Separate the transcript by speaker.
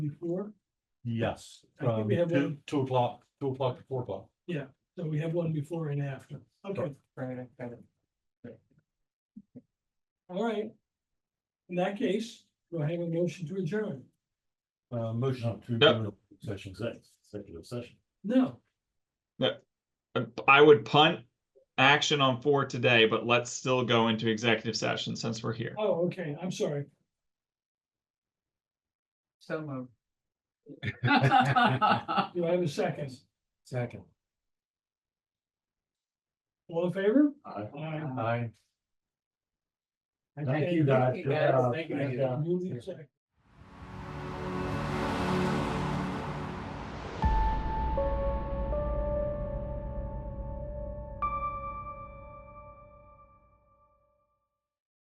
Speaker 1: before,
Speaker 2: Yes,
Speaker 1: I think
Speaker 2: from
Speaker 1: we have
Speaker 2: two,
Speaker 1: one.
Speaker 2: two o'clock, two o'clock to four o'clock.
Speaker 1: so we have one before and after. Okay,
Speaker 3: Friday, Friday.
Speaker 1: all right. In that case, we'll have a motion to adjourn.
Speaker 2: Uh, motion to.
Speaker 4: Yep.
Speaker 2: go into Session six, executive session.
Speaker 1: No,
Speaker 4: I would punt action on four today, but let's still go into executive session since we're here.
Speaker 1: oh, okay, I'm sorry.
Speaker 3: So moved.
Speaker 1: Do I have a second?
Speaker 2: Second.
Speaker 1: All in favor?
Speaker 2: Aye.
Speaker 1: Aye.
Speaker 2: Aye.
Speaker 3: Okay,
Speaker 2: Thank you, guys.
Speaker 3: Thank you, guys.
Speaker 2: Uh,
Speaker 3: Thank you.
Speaker 2: and, uh,
Speaker 1: Move the second.